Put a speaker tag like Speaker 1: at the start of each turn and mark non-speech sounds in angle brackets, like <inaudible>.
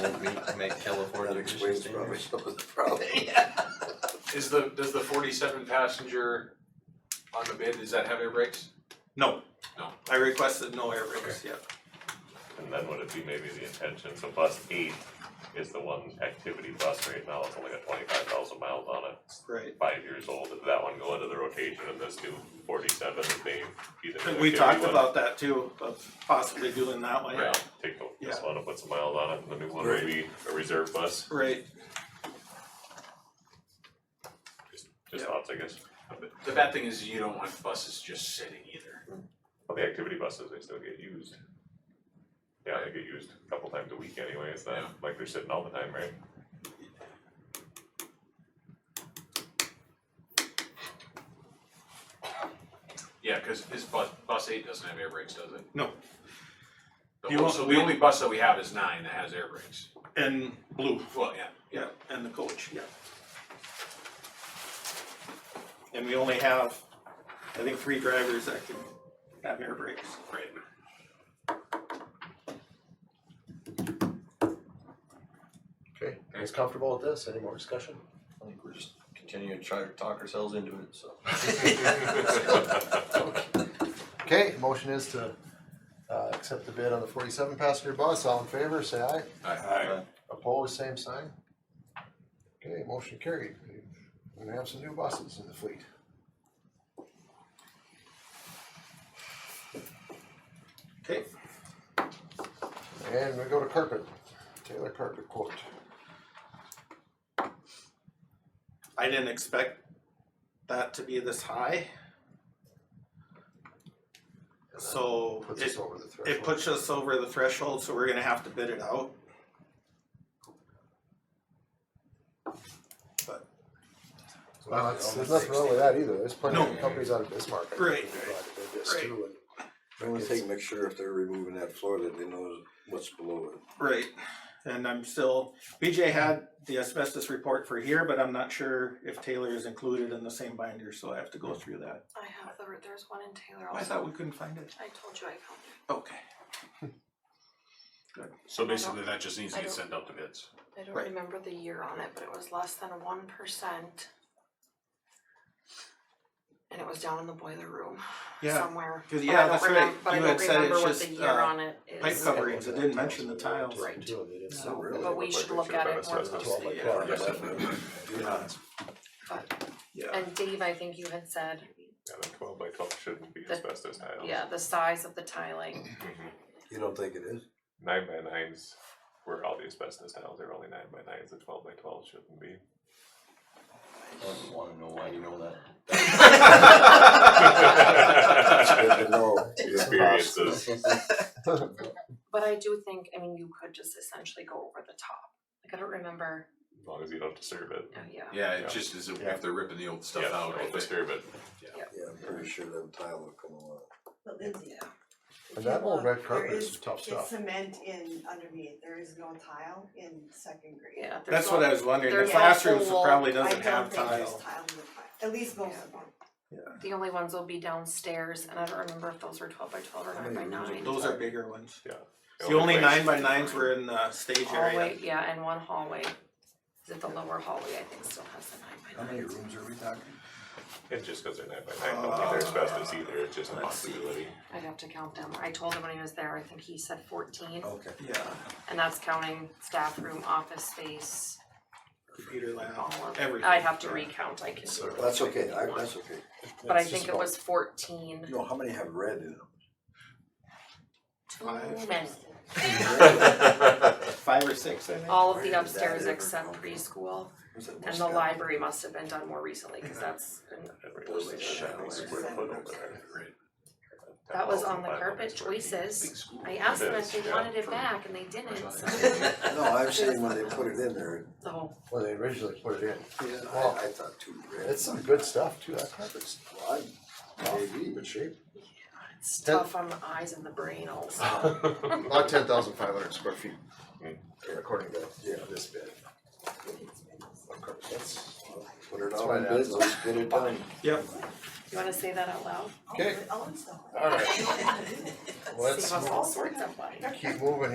Speaker 1: Will we make California
Speaker 2: That
Speaker 1: emission
Speaker 2: explains probably
Speaker 1: <laughs> standards?
Speaker 2: some of the
Speaker 3: <laughs>
Speaker 2: problem.
Speaker 4: Is the, does the forty-seven passenger on the bid, is that heavy brakes?
Speaker 5: No.
Speaker 4: No.
Speaker 5: I requested no air brakes, yeah.
Speaker 6: And then would it be maybe the intention, so bus eight is the one activity bus right now, it's only got twenty-five thousand miles on it, it's
Speaker 5: Right.
Speaker 6: five years old, did that one go into the rotation and this new forty-seven, that they be the new
Speaker 5: We
Speaker 6: activity
Speaker 5: talked
Speaker 6: one?
Speaker 5: about that too, of possibly doing that way.
Speaker 6: Yeah, take the- this
Speaker 5: Yeah.
Speaker 6: one and put some miles on it, and the new one would be a reserve bus,
Speaker 5: Right,
Speaker 6: just, just
Speaker 5: Yeah.
Speaker 6: thoughts, I guess.
Speaker 4: The bad thing is you don't want buses just sitting either.
Speaker 6: Well, the activity buses, they still get used. Yeah, they get used a couple times a week anyway, it's
Speaker 4: Yeah.
Speaker 6: not like they're sitting all the time, right?
Speaker 4: Yeah, cause this bus, bus eight doesn't have air brakes, does it?
Speaker 5: no,
Speaker 4: The
Speaker 5: You
Speaker 4: whole-
Speaker 5: want-
Speaker 4: So the only bus that we have is nine that has air brakes.
Speaker 5: and blue,
Speaker 4: Well, yeah,
Speaker 5: yeah, and the coach, yeah. And we only have, I think, three drivers that can have air brakes.
Speaker 4: right.
Speaker 2: Okay, guys comfortable with this? Any more discussion?
Speaker 1: I think we're just continuing to try to talk ourselves into it, so.
Speaker 2: Okay, motion is to uh accept the bid on the forty-seven passenger bus. All in favor, say aye.
Speaker 1: Aye.
Speaker 2: Opposed, same sign. Okay, motion carried. We're gonna have some new buses in the fleet.
Speaker 5: Okay,
Speaker 2: And we go to carpet, Taylor Carpet quote.
Speaker 5: I didn't expect that to be this high,
Speaker 2: And that
Speaker 5: so
Speaker 2: Puts
Speaker 5: it,
Speaker 2: us over the threshold.
Speaker 5: it puts us over the threshold, so we're gonna have to bid it out. But,
Speaker 2: Well, that's, there's nothing wrong with that either. There's plenty of
Speaker 5: No.
Speaker 2: companies out of Bismarck. I think,
Speaker 5: Right,
Speaker 2: that
Speaker 5: right,
Speaker 2: do this
Speaker 5: right.
Speaker 2: too, and-
Speaker 3: The only thing, make sure if they're removing that floor that they know what's below it.
Speaker 5: right, and I'm still, BJ had the asbestos report for here, but I'm not sure if Taylor is included in the same binder, so I have to go through that.
Speaker 7: I have the, there's one in Taylor
Speaker 5: Oh, I
Speaker 7: also.
Speaker 5: thought we couldn't find it.
Speaker 7: I told you I found it.
Speaker 5: Okay,
Speaker 4: So basically that just needs
Speaker 7: to I get don't-
Speaker 4: sent out to bids.
Speaker 7: I don't
Speaker 5: Right.
Speaker 7: remember the year on it, but it was less than one percent. And it was down in the boiler room
Speaker 5: yeah,
Speaker 7: somewhere.
Speaker 5: 'cause-
Speaker 7: but
Speaker 5: yeah,
Speaker 7: I don't
Speaker 5: that's right.
Speaker 7: remem- But I
Speaker 5: You
Speaker 7: don't
Speaker 5: had said
Speaker 7: remember
Speaker 5: it's
Speaker 7: what the
Speaker 5: just,
Speaker 7: year
Speaker 5: uh,
Speaker 7: on it is.
Speaker 5: pipe coverings, it didn't mention the tiles.
Speaker 7: Right.
Speaker 2: Too, they didn't-
Speaker 7: So,
Speaker 3: really
Speaker 7: but we
Speaker 3: looked
Speaker 7: should
Speaker 6: like
Speaker 7: look
Speaker 6: they
Speaker 7: at
Speaker 6: should've
Speaker 7: it
Speaker 6: been
Speaker 7: more
Speaker 6: assessed.
Speaker 2: Twelve
Speaker 7: closely.
Speaker 2: by twelve,
Speaker 6: Yeah.
Speaker 2: definitely.
Speaker 5: Yeah, yeah,
Speaker 7: And Dave, I think you had said,
Speaker 6: And then twelve by twelve shouldn't be
Speaker 7: The-
Speaker 6: asbestos tiles.
Speaker 7: yeah, the size of the tiling.
Speaker 6: Mhm.
Speaker 3: You don't think it is?
Speaker 6: Nine by nines were all the asbestos tiles, they were only nine by nines, the twelve by twelve shouldn't be.
Speaker 1: I don't wanna know why you know that.
Speaker 3: It's good to know.
Speaker 6: Experiences.
Speaker 7: But I do think, I mean, you could just essentially go over the top. Like, I don't remember,
Speaker 6: As long as you don't disturb it.
Speaker 7: oh, yeah.
Speaker 4: Yeah,
Speaker 6: Yeah.
Speaker 4: it just is,
Speaker 2: Yeah.
Speaker 4: if they're ripping the old stuff
Speaker 6: Yeah,
Speaker 4: out,
Speaker 6: don't
Speaker 4: if it-
Speaker 6: disturb it.
Speaker 3: Yeah, I'm pretty sure that tile will come along.
Speaker 8: But Lindsay.
Speaker 7: Yeah.
Speaker 8: if
Speaker 2: And
Speaker 8: you
Speaker 2: that old
Speaker 8: look,
Speaker 2: red
Speaker 8: there
Speaker 2: carpet is
Speaker 8: is-
Speaker 2: some tough
Speaker 8: It's
Speaker 2: stuff.
Speaker 8: cement in underneath, there is no tile in second grade.
Speaker 7: Yeah. there's
Speaker 5: that's
Speaker 7: all-
Speaker 5: what I was wondering, the
Speaker 7: there's a
Speaker 5: classrooms
Speaker 7: whole-
Speaker 5: probably
Speaker 8: I
Speaker 5: doesn't
Speaker 8: don't
Speaker 5: have
Speaker 8: think there's
Speaker 5: tile.
Speaker 8: tile in the file, at least most of them.
Speaker 7: The only ones will be downstairs, and I don't remember if those were twelve by twelve or
Speaker 2: How
Speaker 7: nine by
Speaker 2: many rooms
Speaker 7: nine.
Speaker 5: Those are bigger ones.
Speaker 6: The
Speaker 5: The only
Speaker 6: place-
Speaker 5: nine by nines were in the stage area.
Speaker 7: Hallway, yeah, and one hallway, is it the lower hallway, I think still has the
Speaker 2: How
Speaker 7: nine by
Speaker 2: many
Speaker 7: nines.
Speaker 2: rooms are we talking?
Speaker 6: It's just because they're nine by nine, don't think they're asbestos either, it's just a
Speaker 5: Let's see.
Speaker 6: possibility.
Speaker 7: I'd have to count them, I told him when he was there, I think he said fourteen,
Speaker 3: Oh.
Speaker 2: Okay.
Speaker 5: Yeah,
Speaker 7: and that's counting staff room, office space,
Speaker 5: computer
Speaker 7: all
Speaker 5: lab,
Speaker 7: of.
Speaker 5: everything.
Speaker 7: I'd have to recount, I can do it,
Speaker 3: That's okay, I, that's okay.
Speaker 7: but I
Speaker 3: It's just
Speaker 7: think it
Speaker 3: about-
Speaker 7: was fourteen.
Speaker 3: No, how many have red in them?
Speaker 7: Too
Speaker 5: Five.
Speaker 7: many.
Speaker 4: <laughs>
Speaker 5: Five or six, I think.
Speaker 7: All of
Speaker 3: Where did
Speaker 7: the
Speaker 3: that
Speaker 7: upstairs
Speaker 3: ever
Speaker 7: except
Speaker 3: come from?
Speaker 7: preschool,
Speaker 3: Was it
Speaker 7: and the
Speaker 3: Muscat?
Speaker 7: library must have been done more recently, cause that's an
Speaker 6: Every
Speaker 3: Those
Speaker 6: place is
Speaker 3: shallow
Speaker 6: a square foot over there.
Speaker 7: That was on the
Speaker 6: 10,500
Speaker 7: carpet
Speaker 6: square feet.
Speaker 7: choices.
Speaker 4: Big school.
Speaker 7: I asked them if
Speaker 6: is,
Speaker 7: they
Speaker 6: yeah.
Speaker 7: wanted it back and they didn't,
Speaker 3: No, I'm saying when they put it in there,
Speaker 7: <laughs> so,
Speaker 2: When they originally put it in.
Speaker 3: I,
Speaker 2: Well,
Speaker 3: I thought two red.
Speaker 2: It's some good stuff too, that carpet's
Speaker 3: Well, I, maybe, but shape.
Speaker 7: it's
Speaker 2: That-
Speaker 7: tough on the eyes and the brain also.
Speaker 6: <laughs>
Speaker 7: <laughs>
Speaker 2: about ten thousand five hundred square feet.
Speaker 6: Mm.
Speaker 2: According to, yeah, this bid.
Speaker 3: That's, put it
Speaker 2: That's
Speaker 3: out
Speaker 2: why
Speaker 3: on
Speaker 2: that-
Speaker 3: bid, let's get it done.
Speaker 5: Yep,
Speaker 7: You wanna say that out loud?
Speaker 2: Okay.
Speaker 8: I'll install it.
Speaker 2: Alright,
Speaker 7: Save
Speaker 2: let's
Speaker 7: us all sorts of money.
Speaker 2: keep moving